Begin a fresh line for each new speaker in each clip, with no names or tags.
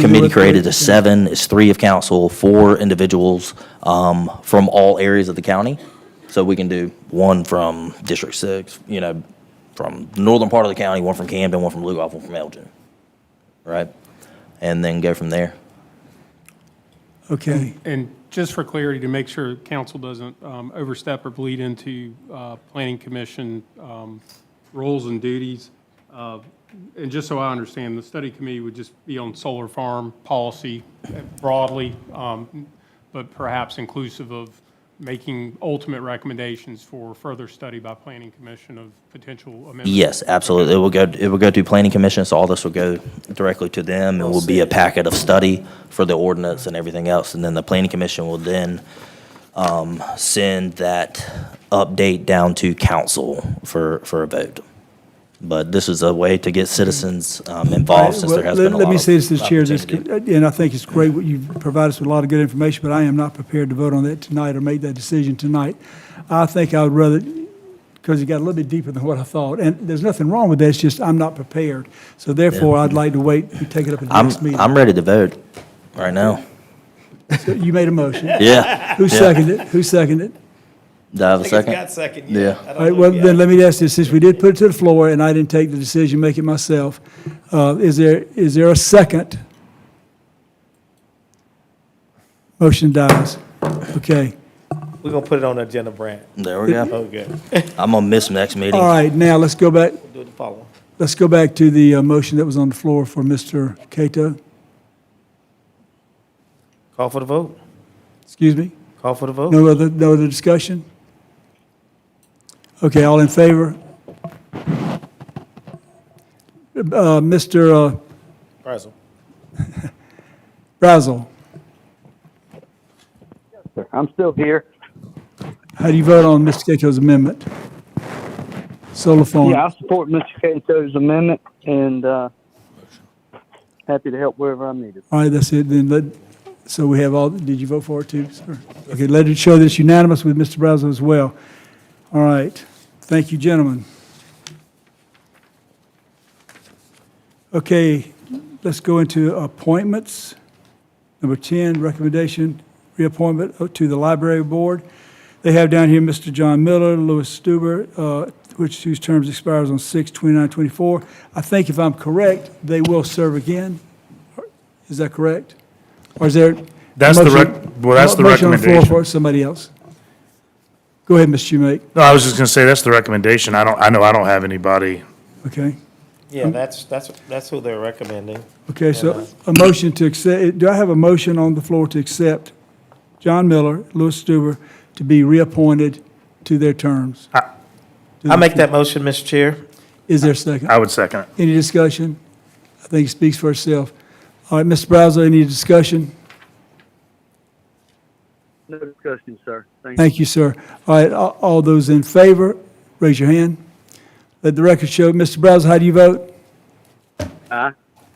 committee created of seven, it's three of council, four individuals um, from all areas of the county. So we can do one from District Six, you know, from the northern part of the county, one from Camden, one from Lugoff, one from Elgin, right? And then go from there.
Okay,
And just for clarity, to make sure council doesn't um, overstep or bleed into uh, Planning Commission um, roles and duties, uh, and just so I understand, the study committee would just be on solar farm policy broadly, um, but perhaps inclusive of making ultimate recommendations for further study by Planning Commission of potential amendments.
Yes, absolutely. It will go, it will go to planning commission, so all this will go directly to them. It will be a packet of study for the ordinance and everything else. And then the planning commission will then um, send that update down to council for, for a vote. But this is a way to get citizens um, involved since there has
Well,
been a lot
Let me
of
say this to the chair, this- uh,
opportunity.
and I think it's great, what you've provided us with a lot of good information, but I am not prepared to vote on that tonight or make that decision tonight. I think I would rather, because it got a little bit deeper than what I thought, and there's nothing wrong with that, it's just I'm not prepared. So therefore, I'd like to wait, and take it up at the
I'm,
next meeting.
I'm ready to vote right now.
So You made a motion.
Yeah.
Who seconded it? Who seconded it?
Do I have a
I think it's
second?
got second,
Yeah.
yeah. I don't
All right,
know
well,
yet.
then let me ask this, since we did put it to the floor and I didn't take the decision, make it myself, uh, is there, is there a second? Motion dies. Okay.
We're gonna put it on the agenda, Brand.
There we go.
Oh, good.
I'm gonna miss next
All
meeting.
right, now let's go back,
Do the following.
let's go back to the uh, motion that was on the floor for Mr. Cato.
Call for the vote.
Excuse me?
Call for the vote.
No other, no other discussion? Okay, all in favor? Uh, Mr. uh,
Brazel.
Brazel,
Sir, I'm still here.
how do you vote on Mr. Cato's amendment? Solar farm.
Yeah, I support Mr. Cato's amendment and, uh, happy to help wherever I'm needed.
All right, that's it, then let, so we have all, did you vote for it too, sir? Okay, let it show that it's unanimous with Mr. Brazel as well. All right, thank you, gentlemen. Okay, let's go into appointments. Number 10, recommendation, reappointment to the library board. They have down here Mr. John Miller, Louis Stuber, uh, which, whose terms expires on 6/29/24. I think if I'm correct, they will serve again. Is that correct? Or is there?
That's the rec-
motion-
well, that's the
motion on floor
recommendation.
for somebody else? Go ahead, Mr. Schumake,
No, I was just gonna say, that's the recommendation. I don't, I know I don't have anybody.
okay?
Yeah, that's, that's, that's who they're recommending.
Okay, so a motion to accept, do I have a motion on the floor to accept John Miller, Louis Stuber, to be reappointed to their terms?
I make that motion, Mr. Chair.
Is there a second?
I would second it.
Any discussion? I think it speaks for itself. All right, Mr. Brazel, any discussion?
No discussion, sir. Thank you.
Thank you, sir. All right, all all those in favor, raise your hand. Let the record show, Mr. Brazel, how do you vote?
Aye.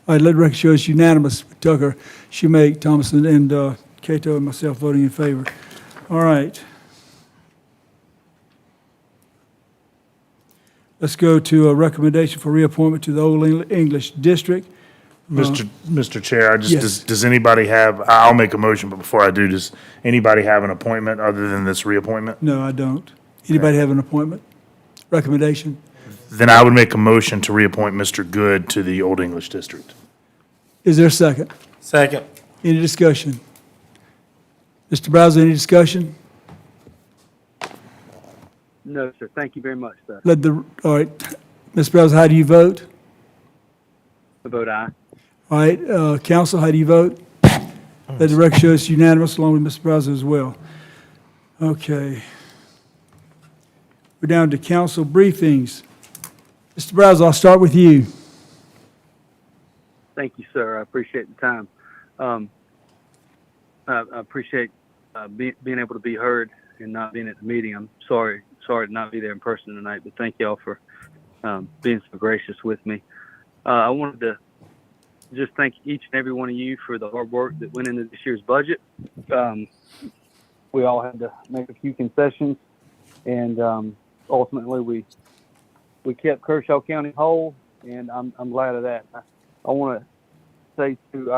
All right, let the record show it's unanimous. Tucker, Schumake, Thomason, and uh, Cato, and myself voting in favor. All right. Let's go to a recommendation for reappointment to the Old Eng- English District.
Mr. Mr. Chair, I just,
Yes.
does, does anybody have, I'll make a motion, but before I do, does anybody have an appointment other than this reappointment?
No, I don't. Anybody have an appointment? Recommendation?
Then I would make a motion to reappoint Mr. Good to the Old English District.
Is there a second?
Second.
Any discussion? Mr. Brazel, any discussion?
No, sir. Thank you very much, sir.
Let the, all right, Ms. Brazel, how do you vote?
I vote aye.
All right, uh, council, how do you vote? Let the record show it's unanimous, along with Mr. Brazel as well. Okay. We're down to council briefings. Mr. Brazel, I'll start with you.
Thank you, sir. I appreciate the time. Um, I, I appreciate uh, be, being able to be heard and not being at the meeting. I'm sorry, sorry to not be there in person tonight, but thank y'all for um, being so gracious with me. Uh, I wanted to just thank each and every one of you for the hard work that went into this year's budget. Um, we all had to make a few concessions, and um, ultimately we we kept Kershaw County whole, and I'm I'm glad of that. I, I want to uh, say to